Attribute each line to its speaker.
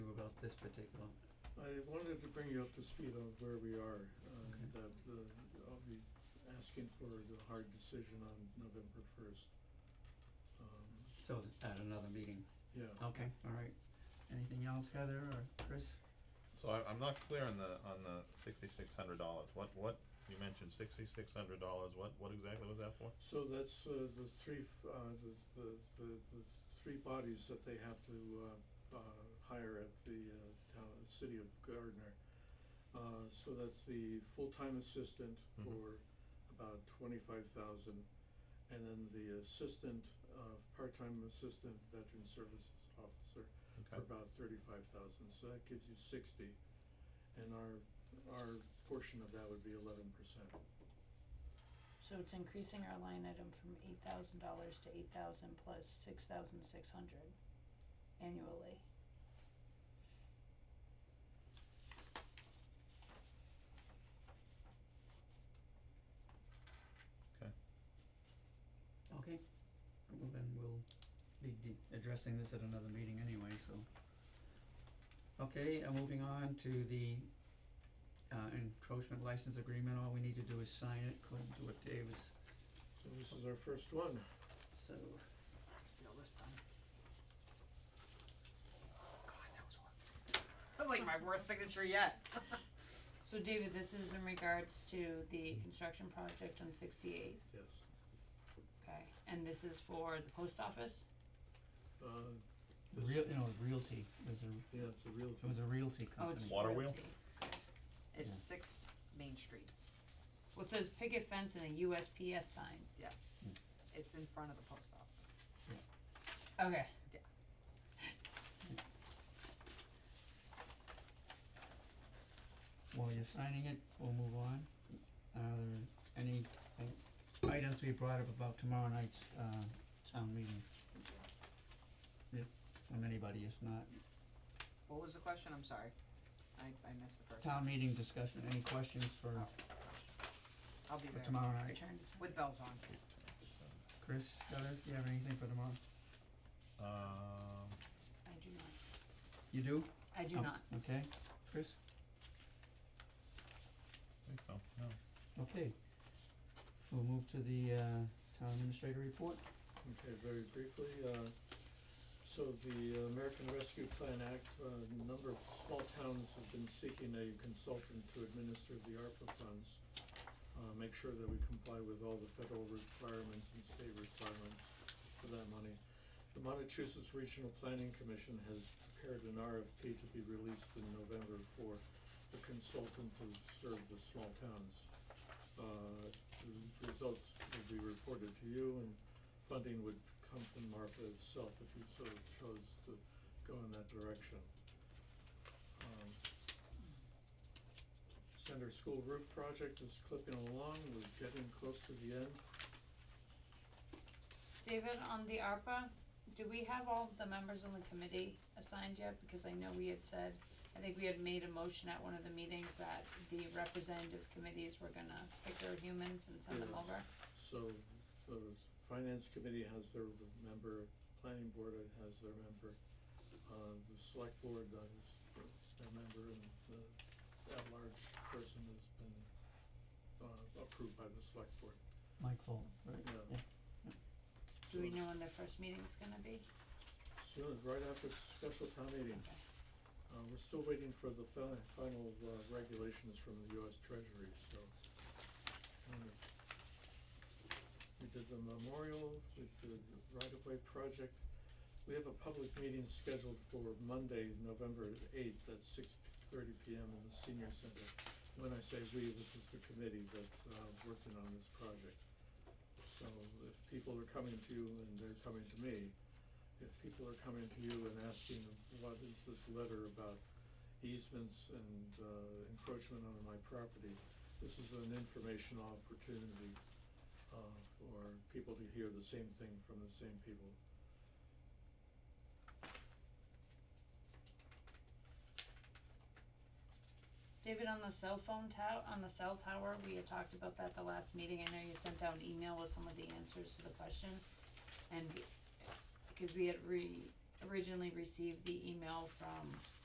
Speaker 1: this particular?
Speaker 2: I wanted to bring you up to speed on where we are, uh,
Speaker 1: Okay.
Speaker 2: that uh, I'll be asking for the hard decision on November first. Um,
Speaker 1: So it's at another meeting.
Speaker 2: Yeah,
Speaker 1: Okay, all right. Anything else, Heather or Chris?
Speaker 3: So I, I'm not clear on the, on the sixty-six hundred dollars, what, what, you mentioned sixty-six hundred dollars, what, what exactly was that for?
Speaker 2: so that's uh, the three, f- uh, the, the, the, the three bodies that they have to uh, uh, hire at the uh, town, city of Gardner. Uh, So that's the full-time assistant
Speaker 3: Mhm.
Speaker 2: for about twenty-five thousand, and then the assistant, uh, part-time assistant veteran services officer for
Speaker 3: Okay,
Speaker 2: about thirty-five thousand, so that gives you sixty. And our, our portion of that would be eleven percent.
Speaker 4: So it's increasing our line item from eight thousand dollars to eight thousand plus six thousand six hundred annually.
Speaker 1: Okay. Well, then we'll be de- addressing this at another meeting anyway, so. Okay, and moving on to the uh encroachment license agreement, all we need to do is sign it according to what Dave is,
Speaker 2: So this is our first one.
Speaker 1: so.
Speaker 5: Steal this pen. God, that was one. That was like my worst signature yet.
Speaker 4: So David, this is in regards to the
Speaker 3: Mm-hmm.
Speaker 4: construction project on sixty-eight,
Speaker 2: Yes.
Speaker 4: okay, and this is for the post office?
Speaker 2: Uh, this-
Speaker 1: Real, you know, realty, there's a,
Speaker 2: yeah, it's a real.
Speaker 1: it was a realty
Speaker 4: Oh,
Speaker 1: company.
Speaker 4: it's
Speaker 3: Water wheel?
Speaker 4: realty.
Speaker 5: It's six Main Street.
Speaker 4: Well, it says picket fence and a USPS sign,
Speaker 5: It's in front of the post office.
Speaker 4: okay.
Speaker 1: While you're signing it, we'll move on. Are there any uh, items we brought up about tomorrow night's uh town meeting? If, from anybody, if not,
Speaker 5: What was the question? I'm sorry. I, I missed the first.
Speaker 1: town meeting discussion, any questions for
Speaker 5: I'll be
Speaker 1: for
Speaker 5: there
Speaker 1: tomorrow night?
Speaker 4: Return to sign.
Speaker 5: with bells on.
Speaker 1: Chris, Scudder, do you have anything for tomorrow?
Speaker 3: um,
Speaker 4: I do not,
Speaker 1: You do?
Speaker 4: I do
Speaker 1: Oh,
Speaker 4: not,
Speaker 1: Okay, Chris,
Speaker 3: I think so, no.
Speaker 1: okay. We'll move to the uh town administrator report.
Speaker 2: Okay, very briefly, uh, so the American Rescue Plan Act, uh, a number of small towns have been seeking a consultant to administer the ARPA funds. Uh, make sure that we comply with all the federal requirements and state requirements for that money. The Massachusetts Regional Planning Commission has prepared an RFP to be released in November for a consultant to serve the small towns. Uh, the results will be reported to you and funding would come from MARPA itself if you sort of chose to go in that direction. Um, Center School roof project is clipping along, we're getting close to the end.
Speaker 4: David, on the ARPA, do we have all the members on the committee assigned yet? Because I know we had said, I think we had made a motion at one of the meetings that the representative committees were gonna pick their humans and send them
Speaker 2: Yeah.
Speaker 4: over.
Speaker 2: So the finance committee has their member, planning board has their member, uh, the select board has their member, and the at-large person has been, uh, approved by the select board.
Speaker 1: Mike Full, right?
Speaker 2: Yeah.
Speaker 4: Do we
Speaker 2: So-
Speaker 4: know when their first meeting's gonna be?
Speaker 2: Soon, right after special town meeting. Uh, we're still waiting for the fi- final, uh, regulations from the US Treasury, so. kind of- We did the memorial, we did the right-of-way project. We have a public meeting scheduled for Monday, November eighth at six thirty P M in the senior center. When I say we, this is the committee that's, uh, working on this project. So if people are coming to you and they're coming to me, if people are coming to you and asking, what is this letter about easements and uh, encroachment on my property? This is an informational opportunity uh, for people to hear the same thing from the same people.
Speaker 4: David, on the cell phone tower, on the cell tower, we had talked about that the last meeting, I know you sent out an email with some of the answers to the question. And because we had re, originally received the email from